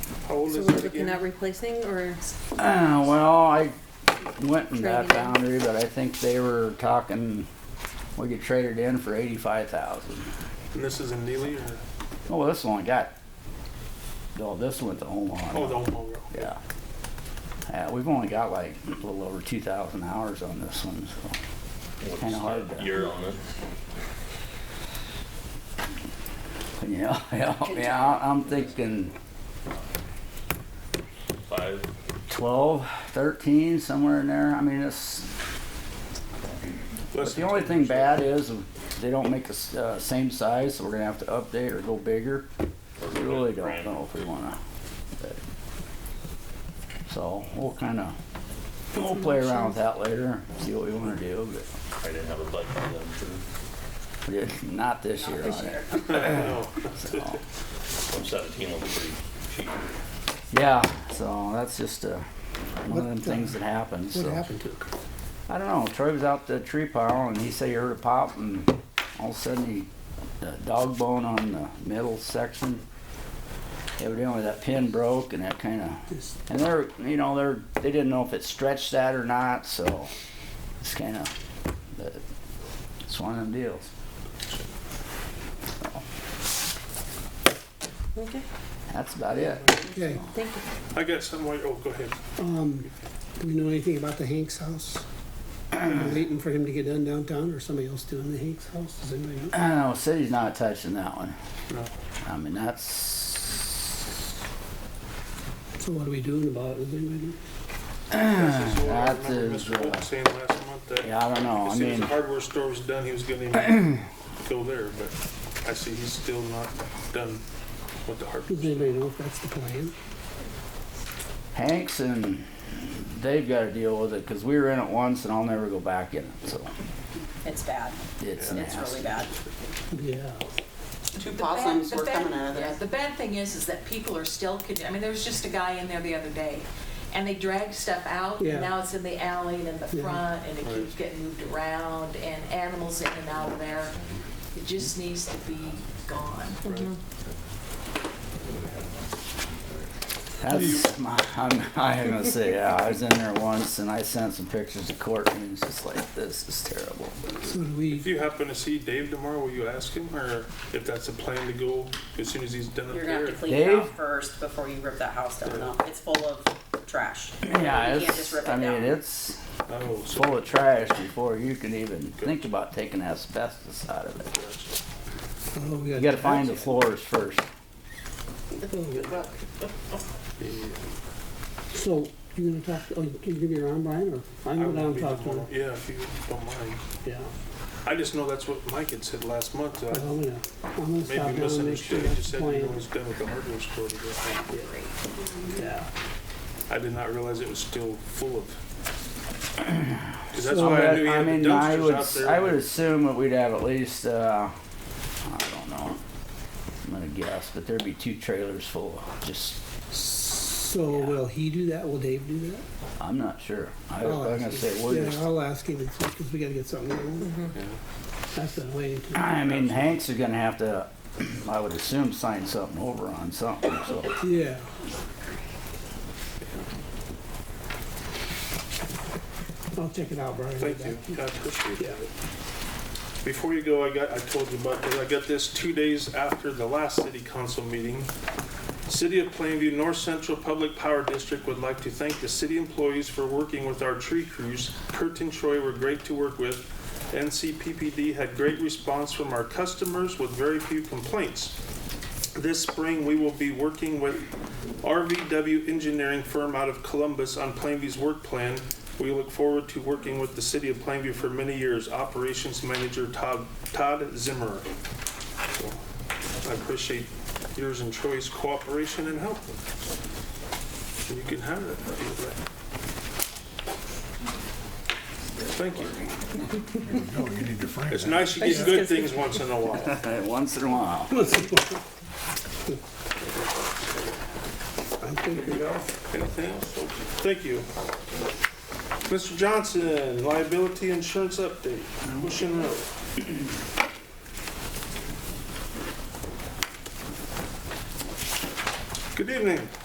How old So is we're it looking at again? replacing or Uh, well, I went in that Traded in. boundary, but I think they were talking, we could trade it in for eighty-five thousand. And this is in Neely or? Oh, well, this one got, oh, this went to Oh, the Omaha. Omaha Road. Yeah. Yeah, we've only got like a little over two thousand hours on this one, so it's kinda hard to, year on it. yeah, yeah, yeah, I- I'm thinking Five. twelve, thirteen, somewhere in there. I mean, it's, But Less the than only 10%. thing bad is they don't make the s- uh, same size, so we're gonna have to update or go bigger. We really don't know if we wanna. but- So we'll kinda, we'll play around with that later, see what we wanna do, but I didn't have a budget for we them. did- not this year on it. No. so. One seventeen looks pretty cheap. Yeah, so that's just uh one of What, them things that happens, What so. happened to it? I don't know. Troy was out the tree pile and he said he heard a pop and all of a sudden he, the dog bone on the middle section. Evidently that pin broke and that kind of, and they're, you know, they're, they didn't know if it stretched that or not, so it's kind of, it's one of them deals. okay? That's about it. Okay, Thank you. I got some, white- oh, go ahead. um, do we know anything about the Hanks house? Are we waiting for him to get done downtown or somebody else doing the Hanks house? Does anybody know? I don't know, city's not touching that one. No. I mean, that's, So what are we doing about it? Does anybody know? That's just what I That remember is, Mr. Holt uh, saying last month that. yeah, I don't know. I As soon as mean, the hardware store was done, he was gonna even go there, but I see he's still not done with the hardware. Does Mm-hmm. store. anybody know if that's the plan? Hanks and they've got to deal with it because we were in it once and I'll never go back in it. So It's bad. it's It's nasty. really bad. Yeah. Two The possums bad- the were bad- coming out of yeah, there. The bad thing is, is that people are still, con- I mean, there was just a guy in there the other day, and they dragged stuff out, Yeah. and now it's in the alley and in the Yeah. front, and it Right. keeps getting moved around, and animals in and out of there. It just needs to be gone. That's my, I'm, I'm gonna say yeah. I was in there once and I sent some pictures to Courtney and it's just like this is terrible. So do we, If you happen to see Dave tomorrow, will you ask him, or if that's a plan to go as soon as he's done up You're gonna have there? to clean it out Dave? first before you rip that house down. though. It's full of trash. Yeah, You can't it's, just rip it I mean down. it's Oh, so, full of trash before you can even think about taking asbestos out of it. oh, we got. You got to find the floors first. Oh, So you're gonna talk, oh, can you give me your arm, Brian, or I'm I gonna will down be and talk to him? tomorrow. Yeah, if you don't mind. Yeah. I just know that's what Mike had said last month, so I Well, I'm gonna, I'm gonna stop maybe down and make sure misunderstood. He just that's the said he plan. was done with the hardware store. to go. Yeah. I did not realize it was still full of. Because that's So, why I but, knew he I had the mean, I dumpsters would, out there. I would assume that we'd have at least, uh, I don't know. I'm gonna guess, but there'd be two trailers full of just, So will he do that? Will Dave do that? I'm not sure. I, I'm I'll ask gonna him. say we're Yeah, just, I'll ask him and see, because we gotta get something going. Yeah. That's been waiting to. I mean, Hanks is gonna have to, I would assume, sign something over on something, so. Yeah. I'll check it out, Brian. Thank Get you. back to I appreciate Yeah. that. Before you go, I got, I told you about this. I got this two days after the last city council meeting. City of Plainview North Central Public Power District would like to thank the city employees for working with our tree crews. Kurt and Troy were great to work with. NCPPD had great response from our customers with very few complaints. This spring, we will be working with RVW Engineering Firm out of Columbus on Plainview's work plan. We look forward to working with the city of Plainview for many years. Operations Manager Todd, Todd Zimmer. So, I appreciate yours and Troy's cooperation and help. And you can have it. if you'd like. Thank you. It's nice you get good things once in a while. Once in a while. I think we got Anything else? Thank you. Mr. Johnson, liability insurance update, Ocean Road. Good evening.